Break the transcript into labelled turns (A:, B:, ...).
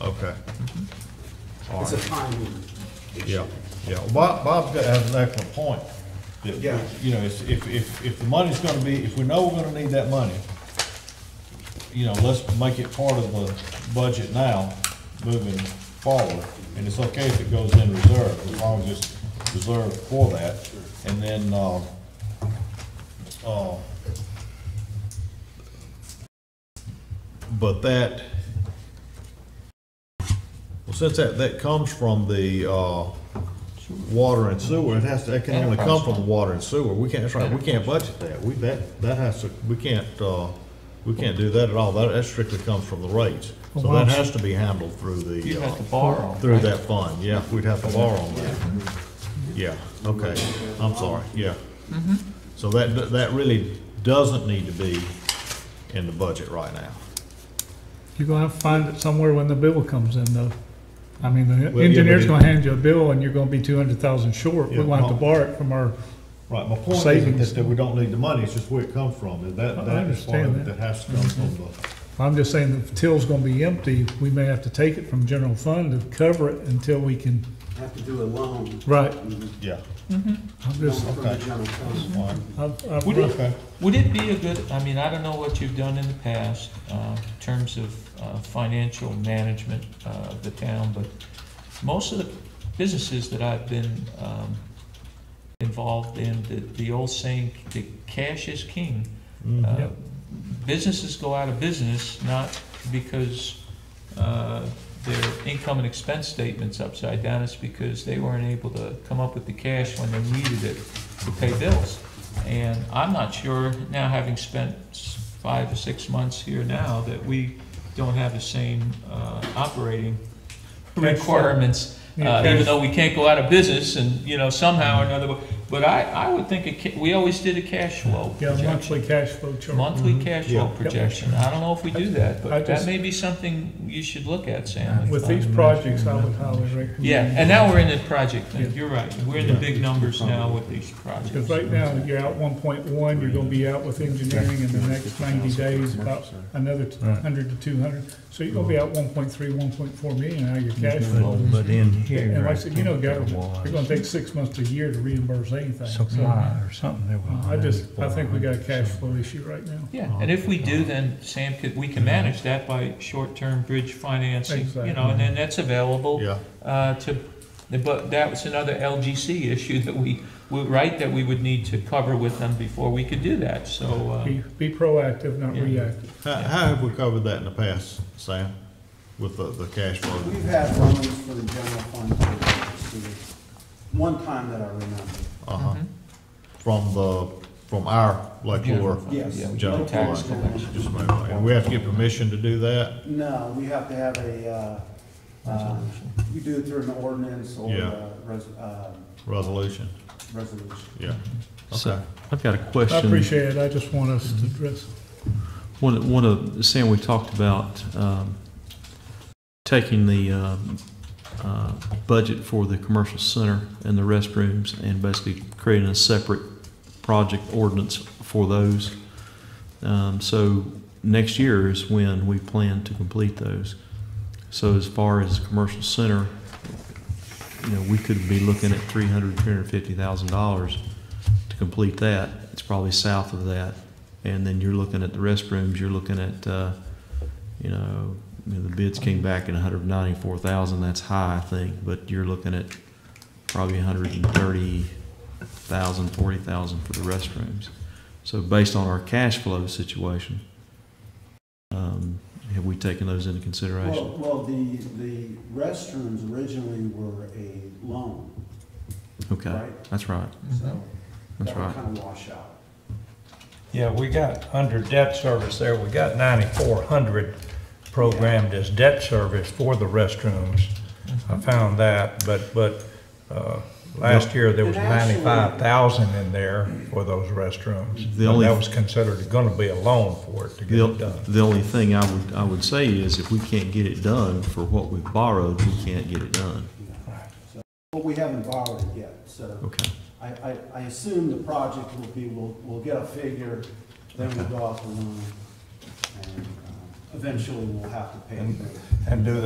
A: Okay. All
B: It's a
A: right.
B: timing issue.
A: Yeah, yeah. Well, Bob, Bob's got, has an excellent point. That,
B: Yeah.
A: You know, it's- if, if, if the money's gonna be, if we know we're gonna need that money, you know, let's make it part of the budget now, moving forward. And it's okay if it goes in reserve, as long as it's reserved for that. And then, uh, uh, but that, well, since that, that comes from the, uh, water and sewer, it has to, it can only come from the water and sewer, we can't, that's right, we can't budget that, we, that, that has to, we can't, uh, we can't do that at all, that, that strictly comes from the rates. So that has to be handled through
C: You'd
A: the,
C: have
A: uh,
C: to borrow.
A: through that fund, yeah, we'd have to borrow on that.
C: Mm-hmm.
A: Yeah, okay, I'm sorry, yeah. So that, that really doesn't need to be in the budget right now.
D: You're gonna have to find it somewhere when the bill comes in, though. I mean, the
A: but
D: engineer's
A: it-
D: gonna hand you a bill and you're gonna be two hundred thousand short. We're
A: Yeah,
D: gonna have to
A: well-
D: borrow it from our,
A: Right, my point isn't
D: Savings.
A: that, that we don't need the money, it's just where it comes from, and that,
D: I
A: that is part
D: understand
A: of it that
D: that.
A: has to come from the,
D: I'm just saying the till's gonna be empty. We may have to take it from general fund to cover it until we can,
B: Have to do a loan. Mm-hmm.
D: right.
A: yeah.
D: I'm
B: Loan
D: just,
B: from the general fund.
A: All right.
D: I'm,
C: Would it-
D: I'm,
A: Okay.
C: Would it be a good, I mean, I don't know what you've done in the past, uh, in terms of, uh, financial management, uh, of the town, but most of the businesses that I've been, um, involved in, the, the old saying, the cash is king. Uh,
D: Mm-hmm. Yep.
C: Businesses go out of business not because uh, their income and expense statement's upside down, it's because they weren't able to come up with the cash when they needed it to pay bills. And I'm not sure, now having spent s- five or six months here now, that we don't have the same uh, operating
D: Cash flow.
C: requirements,
D: Yeah,
C: uh,
D: cash
C: even though we can't go out of business and, you know, somehow or another, but I, I would think, a ca- we always did a cash flow
D: yeah,
C: projection.
D: monthly cash flow chart.
C: Monthly cash flow
A: Yeah.
C: projection, I don't know if we do that,
D: Mm-hmm. I
C: but that
D: just-
C: may be something you should look at, Sam. Um,
D: With these projects, I would highly recommend.
C: Yeah, and now we're in the project
D: Yeah.
C: thing, you're right, we're in the big numbers now with these
D: Because
C: projects.
D: right now, you're out one point one, you're gonna be out with engineering in the next ninety days, about another hundred to two hundred. So you're gonna be out one point three, one point four million out of your cash flow.
E: But in here.
D: And like I said, you know,
E: I think there
D: government, you're gonna
E: was
D: take six months to a year to reimburse anything.
E: Some
D: So
E: line or something that was.
D: I just, I think we got a cash
E: So-
D: flow issue right now.
C: Yeah, and if we do,
D: Uh-huh.
C: then Sam could, we can manage that by short-term bridge financing, you know, and then that's available
A: Yeah,
C: uh, to, but that was another LGC issue that we, we- right, that we would need to cover with them before we could do that, so. uh,
D: Be, be proactive, not
C: Yeah.
D: reactive.
A: how, how have we covered that in the past, Sam, with the, the cash flow?
B: We've had loans for the general fund. for the sewer. One time that I remember.
A: Uh-huh, from the, from our Lake
C: General
A: Lure,
C: fund,
B: Yes.
C: yeah,
A: General
C: tax
B: fund.
C: collection.
A: just move on. and we have to get permission to do that?
B: No, we have to have a, uh, uh, we do it through an ordinance or
A: Yeah.
B: a res- uh,
A: Resolution,
B: resolution.
A: yeah.
D: Mm-hmm.
F: So,
A: Okay.
F: I've got a
D: I
F: question.
D: appreciate it, I just want us to address.
F: One, one of, Sam, we talked about, um, taking the, um, uh, budget for the commercial center and the restrooms and basically creating a separate project ordinance for those. Um, so next year is when we plan to complete those. So as far as commercial center, you know, we could be looking at three hundred, three hundred fifty thousand dollars to complete that. It's probably south of that. And then you're looking at the restrooms, you're looking at, uh, you know, you know, the bids came back at hundred ninety-four thousand, that's high, I think, but you're looking at probably hundred and thirty thousand, forty thousand for the restrooms. So based on our cash flow situation, um, have we taken those into
B: Well,
F: consideration?
B: well, the, the restrooms originally were a loan,
F: Okay,
B: right?
F: that's right,
B: So
F: that's
B: that would
F: right.
B: kind of wash out.
E: Yeah, we got, under debt service there, we got ninety-four hundred programmed as debt service for the restrooms. I found that, but, but, uh, last year there was
B: And actually-
E: ninety-five thousand in there for those restrooms.
F: The
E: And
F: only-
E: that was considered gonna be a loan for it to get
F: The,
E: it done.
F: the only thing I would, I would say is if we can't get it done for what we borrowed, we can't get it done.
B: But we haven't borrowed it yet, so
F: Okay,
B: I, I, I assume the project will be, we'll, we'll get a figure, then we'll go off the loan, and uh, eventually we'll have to pay. it back.
E: And do